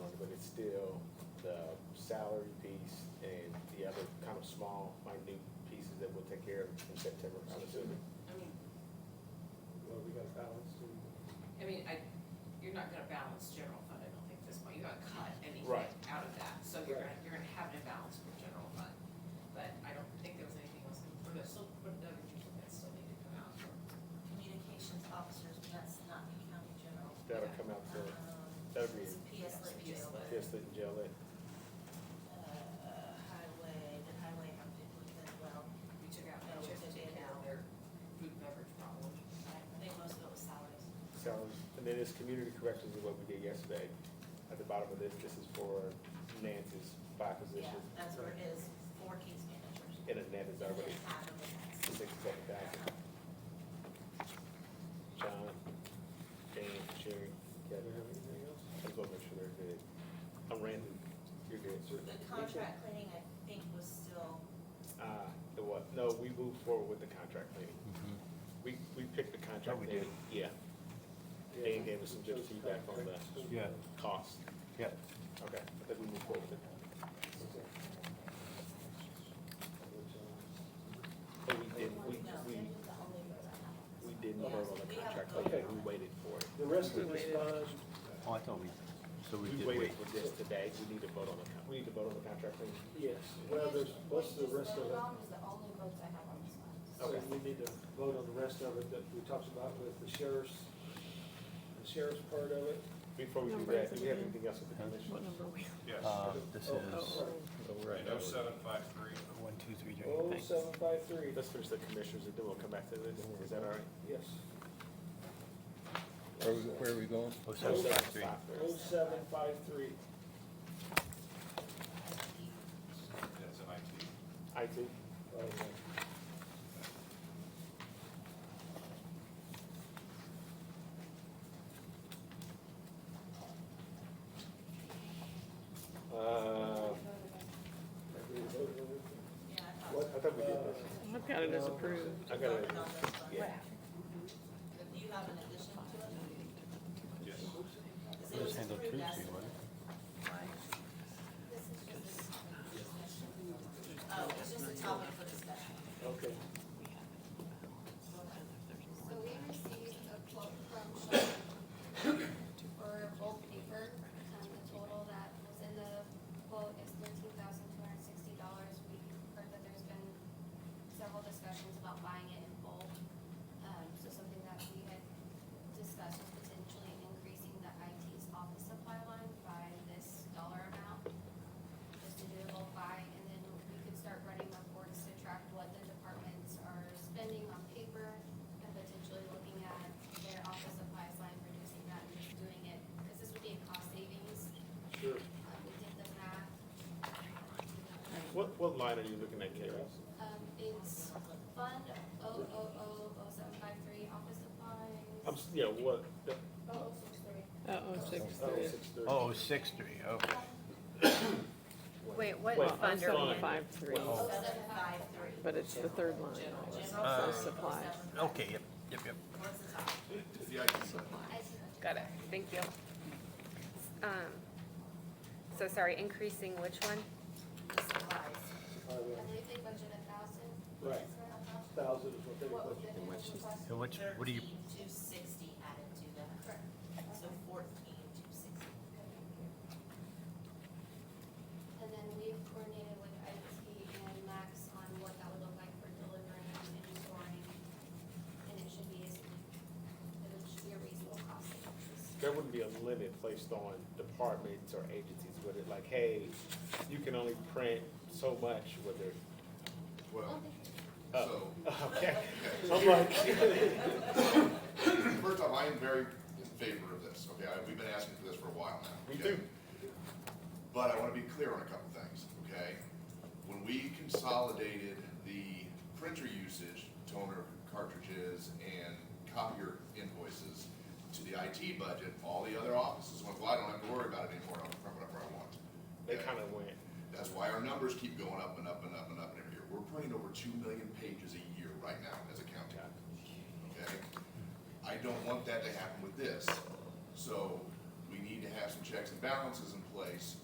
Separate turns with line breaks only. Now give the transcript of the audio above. salary piece and the other kind of small, minute pieces that we'll take care of in September, I'm assuming.
I mean,
Well, we got a balance to,
I mean, I, you're not gonna balance general fund, I don't think, at this point, you gotta cut anything
Right.
out of that, so you're
Right.
gonna, you're gonna have an imbalance for general fund. But I don't think there was anything else, but there's still, but the other people that still need to come out for,
communications officers, but that's not the county general.
That'll come out for,
Um,
that'll be
It's PS
That's
lit
PS lit.
jail, but,
just the jail that,
uh, highway, the highway have to look as well.
we took out, we
Oh, we
just
took
taken
it
out
out.
their food and beverage problem.
I think most of it was salaries.
Sounds, and then this community corrections is what we did yesterday. At the bottom of this, this is for Nancy's five
Yeah,
positions.
that's where it is, four case managers.
And a net is already
And half of the tax.
sixty-seven thousand.
Um,
John, Dan, Sherry,
do
Kevin,
we have anything else?
I just wanna make sure they're good. I'm Randy, you're good, sir.
The contract cleaning, I think, was still,
Uh, the what? No, we moved forward with the contract meeting.
Mm-hmm.
We, we picked the contract.
Oh, we
meeting.
did.
Yeah, Dan gave us some good
Just
feedback on that.
contracts.
Yeah.
cost.
Yeah.
Okay, I think we moved forward with it.
Okay. Which, uh,
But we didn't, we,
no,
we,
that was the only vote I had.
we didn't
Yeah,
vote on the
we haven't
contract
voted
meeting.
on
We
it.
waited for it.
The rest of this bond,
Oh, I thought we, so we
We
did
waited
wait.
for this today. We need to vote on the, con- we need to vote on the contract meeting.
yes, well, there's, what's the rest of it?
is the only votes I have on this one.
So we need to vote on the rest of it that we talked about with the sheriff's, the sheriff's part of it.
Before we do
Number
that, do we have
ten.
anything else with the commission?
What number are we?
Yes,
Uh, this is
Oh,
right, oh seven five three.
one, two, three,
Oh,
thanks.
seven five three,
Let's finish the commissioners and then we'll come back to this. Is that all right?
yes.
Where, we- where are we going?
Oh, seven,
Seven,
five, three.
five,
Oh, seven five three,
That's an IT.
IT.
okay.
Uh,
Have we voted on it?
Yeah, I thought.
what? I thought we did this.
I've got it as approved.
I got it.
Voted on this one.
Yeah.
Do you have an addition to it?
Yes.
'Cause
It
it
was
was
handled
approved
Tuesday,
as-
wasn't
This is just a topic for discussion. Oh, it's just a topic for discussion.
Okay,
So we received a quote from Shaw for bulk paper. Um, the total that was in the quote is thirteen thousand two hundred and sixty dollars. We heard that there's been several discussions about buying it in bulk. Um, so something that we had discussed was potentially increasing the IT's office supply line by this dollar amount. just to do a little buy, and then we could start running reports to track what the departments are spending on paper and potentially looking at their office supplies line, reducing that and just doing it, because this would be a cost savings.
sure.
Um, we did the math.
What, what line are you looking at, Carrie?
Um, it's fund oh oh oh oh seven five three, office supplies.
I'm, s- yeah, what? the-
Oh, oh six three.
Uh-oh, six,
Oh,
three.
six thirty.
Oh, six, three, okay.
Wait, what
Wait,
I'm
fund are we
seven,
fine.
five, three,
Oh, seven five three.
but it's the third line.
General.
Also supplies.
Okay, yep, yep, yep.
What's the topic?
It's the IT.
I see what you're
Got it, thank you. Um, So sorry, increasing which one?
The supplies.
Highway.
I believe they budget a thousand.
Right. Thousand is what they
What was
put.
the request?
And which, what do you,
Thirteen two sixty added to that,
Correct.
so fourteen two sixty.
And then we've coordinated with IT and Max on what that would look like for delivering and storing. And it should be, a significant- it should be a reasonable cost. savings.
There wouldn't be a limit placed on departments or agencies, would it? Like, hey, you can only print so much, whether,
Well,
oh,
so,
okay. I'm like,
first off, I am very in favor of this, okay? I- We've been asking for this for a while now.
We
okay?
do.
But I want to be clear on a couple things, okay? When we consolidated the printer usage, toner cartridges, and copier invoices to the IT budget, all the other offices went, well, I don't have to worry about it anymore, I'll print whatever I want.
they
okay?
kind of went,
That's why our numbers keep going up and up and up and up every year. We're printing over two million pages a year right now as a county,
yeah.
okay? I don't want that to happen with this. So we need to have some checks and balances in place